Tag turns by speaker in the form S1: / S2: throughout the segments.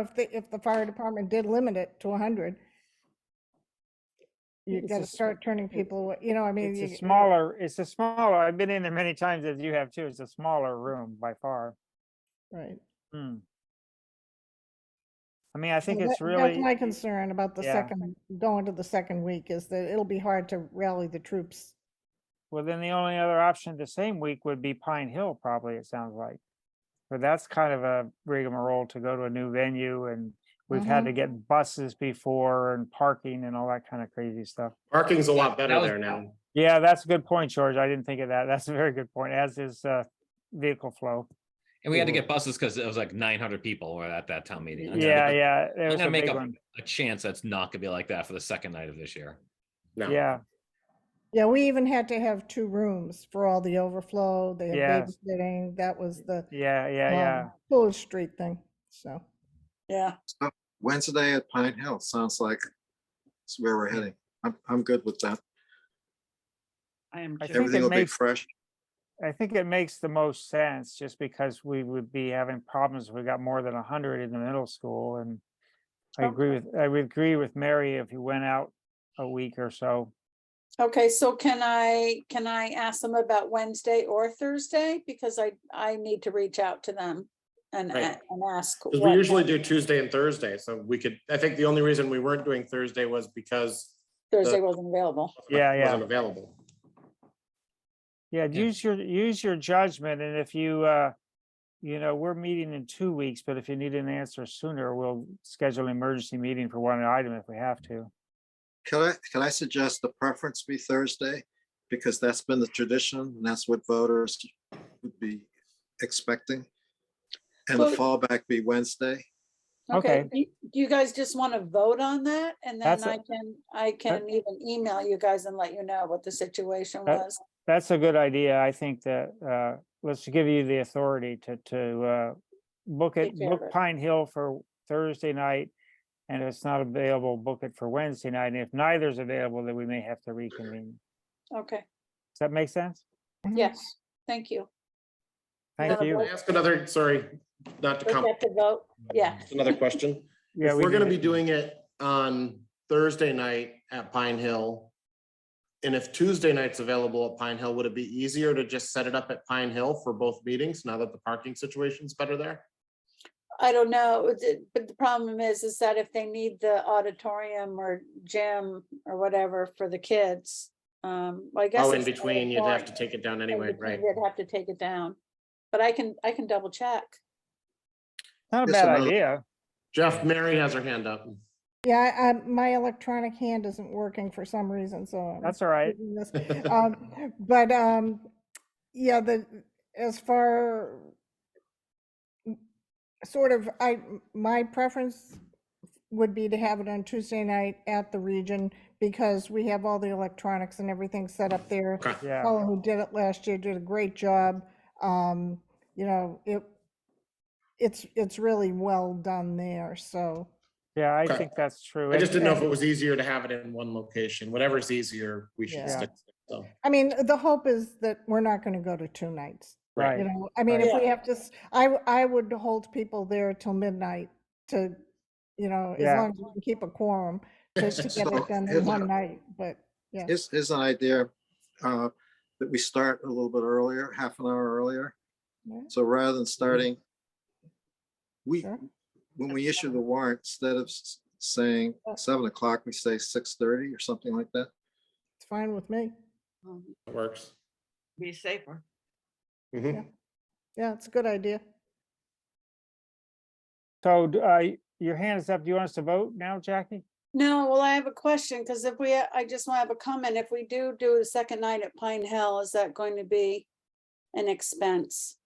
S1: if the, if the fire department did limit it to 100, you
S2: It's
S1: got
S2: a
S1: to
S2: sm-
S1: start turning people, away. you know, I mean.
S2: It's
S1: you-
S2: a smaller, it's a smaller, I've been in there many times as you have too. It's a smaller room by far.
S1: Right.
S2: Hmm. I mean, I think
S1: So
S2: it's
S1: that- that's
S2: really,
S1: My concern about the
S2: Yeah.
S1: second, going to the second week is that it'll be hard to rally the troops.
S2: well, then the only other option the same week would be Pine Hill, probably, it sounds like. But that's kind of a rigmarole to go to a new venue and we've had
S1: Mhm.
S2: to get buses before and parking and all that kind of crazy stuff.
S3: Parking's a lot
S4: that
S3: better
S4: was-
S3: there now.
S2: Yeah, that's a good point, George. I didn't think of that. That's a very good point, as is, uh, vehicle flow.
S4: And we had to
S2: People-
S4: get buses because it was like nine hundred people were at that town meeting. I'm gonna
S2: Yeah,
S4: make up-
S2: yeah. It
S4: I'm
S2: was
S4: gonna
S2: a
S4: make
S2: big
S4: up
S2: one.
S4: a chance that's not gonna be like that for the second night of this year.
S3: No.
S2: Yeah.
S1: Yeah, we even had to have two rooms for all the overflow, they had
S2: Yes.
S1: babysitting, that was the
S2: Yeah, yeah, yeah.
S1: um, Fuller Street thing, so.
S5: Yeah,
S6: Wednesday at Pine Hill, sounds like it's where we're heading. I'm, I'm good with that.
S5: I am
S2: I think
S5: too.
S2: it
S6: Everything will be
S2: makes-
S6: fresh.
S2: I think it makes the most sense just because we would be having problems. if We got more than a hundred in the middle school and I agree with, I would agree with Mary if you went out a week or so.
S5: Okay, so can I, can I ask them about Wednesday or Thursday? Because I, I need to reach out to them and,
S3: Right.
S5: a- and ask.
S3: Because we
S5: what-
S3: usually do Tuesday and Thursday, so we could, I think the only reason we weren't doing Thursday was because
S5: Thursday wasn't available.
S2: Yeah, yeah.
S3: Wasn't available.
S2: Yeah,
S4: Yeah.
S2: use your, use your judgment and if you, uh, you know, we're meeting in two weeks, but if you need an answer sooner, we'll schedule an emergency meeting for one item if we have to.
S6: Can I, can I suggest the preference be Thursday? Because that's been the tradition and that's what voters would be expecting. And the
S5: Well-
S6: fallback be Wednesday.
S5: Okay,
S2: Okay.
S5: do you- do you guys just want to vote on that? And then
S2: That's a-
S5: I can, I can even email you guys and let you know what the situation
S2: That-
S5: was.
S2: That's a good idea. I think that, uh, let's give you the authority to, to, uh, book
S5: Take
S2: it,
S5: care
S2: book
S5: of it.
S2: Pine Hill for Thursday night. And if it's not available, book it for Wednesday night. And if neither's available, then we may have to reconvene.
S5: Okay,
S2: Does that make sense?
S5: yes, thank you.
S2: Thank
S5: Yeah,
S3: Can I
S2: you.
S3: ask another, sorry, not to
S5: We
S3: come,
S5: have to vote, yeah.
S3: another question?
S2: Yeah,
S3: If
S2: we
S3: we're gonna
S2: need
S3: be
S2: it.
S3: doing it on Thursday night at Pine Hill, and if Tuesday night's available at Pine Hill, would it be easier to just set it up at Pine Hill for both meetings now that the parking situation's better there?
S5: I don't know, th- but the problem is, is that if they need the auditorium or gym or whatever for the kids, um, well, I guess.
S3: Oh, in
S5: it's the
S3: between, you'd have to
S5: auditorium.
S3: take it down
S5: In
S3: anyway,
S5: between,
S3: right?
S5: They'd have to take it down, but I can, I can double check.
S2: Not a
S6: Yes,
S2: bad
S6: another-
S2: idea.
S3: Jeff, Mary has her hand up.
S1: Yeah, I, I- my electronic hand isn't working for some reason, so. I'm
S2: That's all right.
S1: doing this. Um, But, um, yeah, the, as far, sort of, I, my preference would be to have it on Tuesday night at the region because we have all the electronics and everything set up there.
S3: Okay.
S2: Yeah,
S1: Fellow who did it last year did a great job. Um, you know, it, it's, it's really well done there, so.
S2: yeah, I
S3: Okay.
S2: think that's true.
S3: I just
S2: And-
S3: didn't know if
S2: and-
S3: it was easier to have it in one location. Whatever's easier, we
S1: Yeah.
S3: should stick. to it, So,
S1: I mean, the hope is that we're not gonna go to two nights, you
S2: Right.
S1: know, I mean,
S5: Right.
S1: if we have to, s- I, w- I would hold people there till midnight to, you know, as
S2: Yeah.
S1: long as we can keep a quorum, to to get
S6: So,
S1: it done in
S6: here's
S1: one
S6: a-
S1: night, but, yeah.
S6: Here's, here's an idea uh, that we start a little bit earlier, half an hour earlier.
S1: Yeah. Mm-hmm.
S6: So rather than starting, we,
S1: Sure.
S6: when we issue the warrant, instead of s- saying
S1: Yeah.
S6: seven o'clock, we say six thirty or something like that.
S1: It's fine with me.
S5: Um,
S3: it works.
S7: be safer.
S3: Mhm.
S1: Yeah, it's a good idea.
S2: So, d- uh, y- your hand is up. Do you want us to vote now, Jackie?
S5: No, well, I have a question, because if we, I just want to have a comment, if we do do the second night at Pine Hill, is that going to be an expense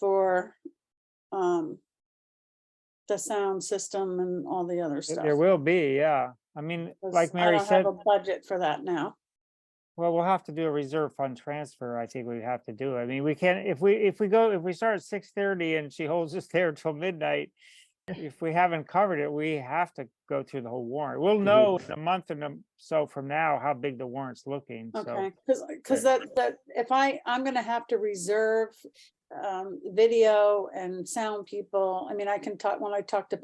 S5: for, um, the sound system and all the other
S2: Th-
S5: stuff?
S2: There will be, yeah. I mean,
S5: 'Cause
S2: like
S5: I
S2: Mary
S5: don't have
S2: said,
S5: a Budget for that now.
S2: well, we'll have to do a reserve fund transfer. I think we have to do. I mean, we can't, if we, if we go, if we start at six thirty and she holds us there till midnight, if we haven't covered it, we have to go through the whole warrant. We'll know in a month and a- so from now how big the warrant's looking, so.
S5: Okay, because, because that, that, if I, I'm gonna have to reserve, um, video and sound people. I mean, I can talk, when I talk to